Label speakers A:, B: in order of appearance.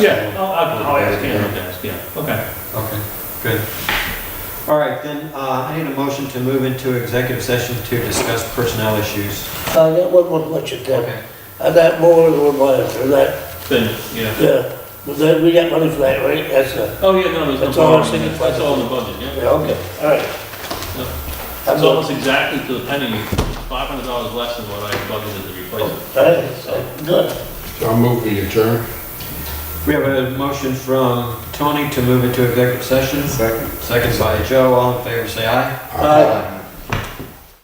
A: Yeah, I'll, I'll ask him, I'll ask, yeah, okay.
B: Okay, good. All right, then, uh, I need a motion to move into executive session to discuss personnel issues.
C: I got Oh, one more question, Ted. And that more than one wire through that,
A: Then, yeah.
C: yeah. But then we got money for that, right? That's, uh,
A: Oh, yeah, no, there's
C: That's
A: no
C: all I'm
A: borrowing,
C: thinking.
A: that's that's all in the budget, yeah.
C: yeah, okay, all right.
A: Yeah.
C: I'm
A: It's
C: not,
A: almost exactly to the penny, five hundred dollars less than what I budgeted to replace it.
C: all right, good.
D: So I'll move the adjourn.
B: We have a motion from Tony to move into executive session,
D: Second.
B: second by Joe, all in favor, say aye.
C: Aye.